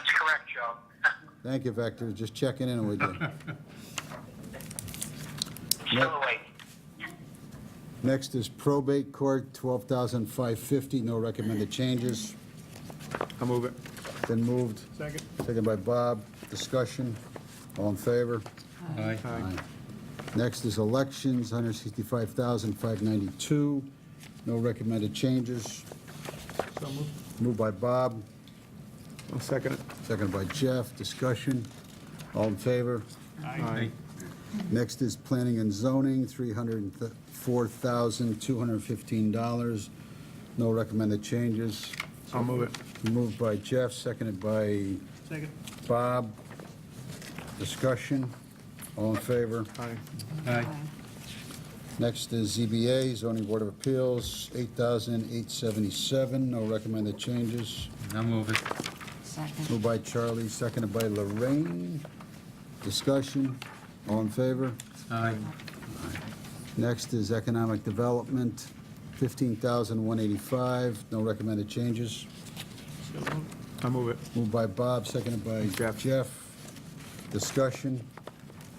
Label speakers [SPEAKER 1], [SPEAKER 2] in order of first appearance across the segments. [SPEAKER 1] correct, Joe.
[SPEAKER 2] Thank you, Vector, just checking in with you.
[SPEAKER 1] Still awake.
[SPEAKER 2] Next is probate court, 12550 no recommended changes.
[SPEAKER 3] I'll move it.
[SPEAKER 2] Been moved,
[SPEAKER 3] Second.
[SPEAKER 2] taken by Bob, discussion, all in favor?
[SPEAKER 3] Aye.
[SPEAKER 2] Next is elections, 165,592, no recommended changes.
[SPEAKER 3] So moved.
[SPEAKER 2] Moved by Bob,
[SPEAKER 3] I'll second it.
[SPEAKER 2] seconded by Jeff, discussion, all in favor?
[SPEAKER 3] Aye.
[SPEAKER 2] Next is planning and zoning, $304,215, no recommended changes.
[SPEAKER 3] I'll move it.
[SPEAKER 2] Moved by Jeff, seconded by
[SPEAKER 3] Second.
[SPEAKER 2] Bob. Discussion, all in favor?
[SPEAKER 3] Aye. Aye.
[SPEAKER 2] Next is ZBA, zoning board of appeals, 8,877, no recommended changes.
[SPEAKER 4] I'll move it.
[SPEAKER 5] Second.
[SPEAKER 2] Moved by Charlie, seconded by Lorraine. Discussion, all in favor?
[SPEAKER 4] Aye.
[SPEAKER 2] Next is economic development, 15,185, no recommended changes.
[SPEAKER 3] I'll move it.
[SPEAKER 2] Moved by Bob, seconded by
[SPEAKER 3] Jeff.
[SPEAKER 2] Jeff. Discussion,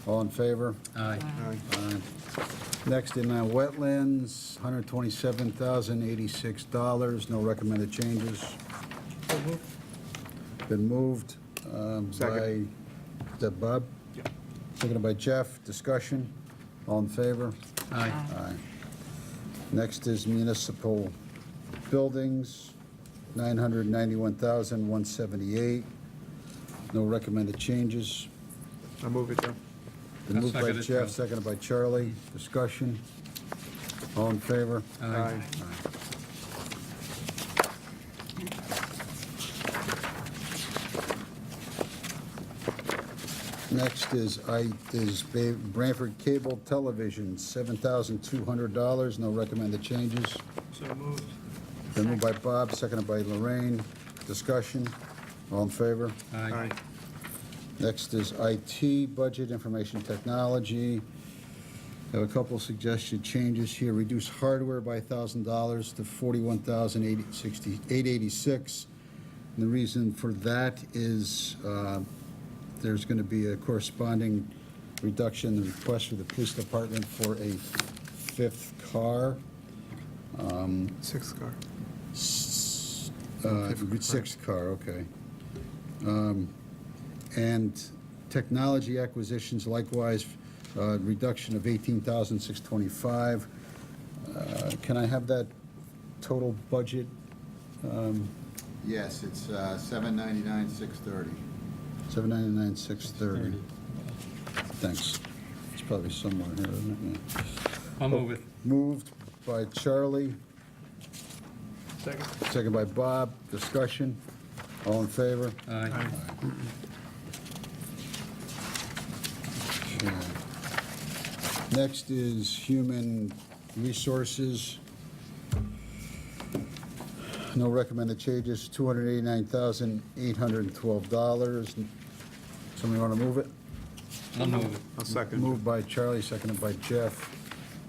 [SPEAKER 2] all in favor?
[SPEAKER 4] Aye.
[SPEAKER 3] Aye.
[SPEAKER 2] Aye. Uh, Next in uh, wetlands, $127,086, no recommended changes. Been moved um, by, is
[SPEAKER 3] Second.
[SPEAKER 2] that Bob?
[SPEAKER 3] Yep.
[SPEAKER 2] Seconded by Jeff, discussion, all in favor?
[SPEAKER 4] Aye.
[SPEAKER 2] Aye. Next is municipal buildings, 991,178. No recommended changes.
[SPEAKER 3] I'll move it, Joe.
[SPEAKER 2] Been
[SPEAKER 4] I'll
[SPEAKER 2] moved by
[SPEAKER 4] second it, Joe.
[SPEAKER 2] Jeff, seconded by Charlie. Discussion? All in favor?
[SPEAKER 4] Aye.
[SPEAKER 2] Next is I, is Ba- Branford Cable Television, $7,200. No recommended changes.
[SPEAKER 3] So moved.
[SPEAKER 2] Been moved by Bob, seconded by Lorraine. Discussion? All in favor?
[SPEAKER 4] Aye.
[SPEAKER 3] Aye.
[SPEAKER 2] Next is IT, budget, information technology. Have a couple suggested changes here. Reduce hardware by $1,000 to $41,886. And the reason for that is uh, there's going to be a corresponding reduction in the request for the police department for a fifth car,
[SPEAKER 3] Sixth car.
[SPEAKER 2] S- uh, sixth car, okay. Um, And technology acquisitions likewise, uh, reduction of 18,625. Uh, Can I have that total budget? Um,
[SPEAKER 6] Yes, it's uh, 799, 630.
[SPEAKER 2] 799, 630. Thanks. It's probably somewhere here, isn't it? Yeah.
[SPEAKER 4] I'll move it.
[SPEAKER 2] Moved by Charlie,
[SPEAKER 3] Second.
[SPEAKER 2] second by Bob. Discussion? All in favor?
[SPEAKER 4] Aye.
[SPEAKER 2] Okay. Next is human resources. No recommended changes, $289,812. Somebody want to move it?
[SPEAKER 4] I'll move it.
[SPEAKER 3] I'll second.
[SPEAKER 2] Moved by Charlie, seconded by Jeff.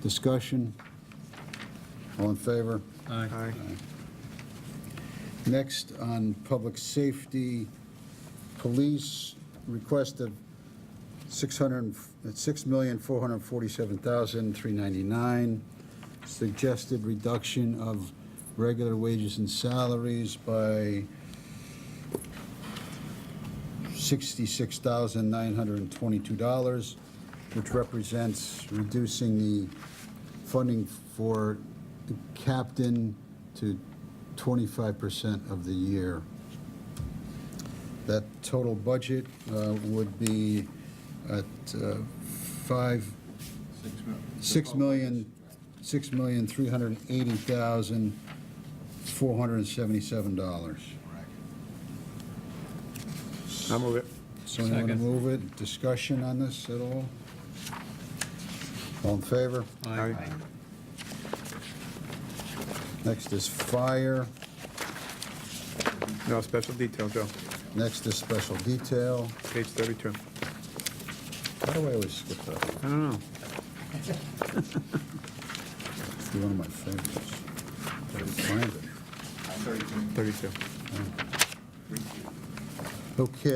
[SPEAKER 2] Discussion? All in favor?
[SPEAKER 4] Aye.
[SPEAKER 3] Aye.
[SPEAKER 2] Next, on public safety, police request of 600, $6,447,399, suggested reduction of regular wages and salaries by $66,922, which represents reducing the funding for the captain to 25% of the year. That total budget uh, would be at uh, five,
[SPEAKER 6] Six mil-
[SPEAKER 2] six
[SPEAKER 6] Oh,
[SPEAKER 2] million, six million, three hundred and eighty thousand, four hundred and seventy-seven dollars.
[SPEAKER 6] Correct.
[SPEAKER 3] I'll move it.
[SPEAKER 2] So you want to
[SPEAKER 4] Second.
[SPEAKER 2] move it? Discussion on this at all? All in favor?
[SPEAKER 4] Aye.
[SPEAKER 2] Next is fire.
[SPEAKER 3] No, special detail, Joe.
[SPEAKER 2] Next is special detail.
[SPEAKER 3] Page 32.
[SPEAKER 2] How do I always skip that?
[SPEAKER 3] I don't know.
[SPEAKER 2] It's one of my favorites. Gotta find it.
[SPEAKER 6] 32.
[SPEAKER 3] 32.
[SPEAKER 2] Okay.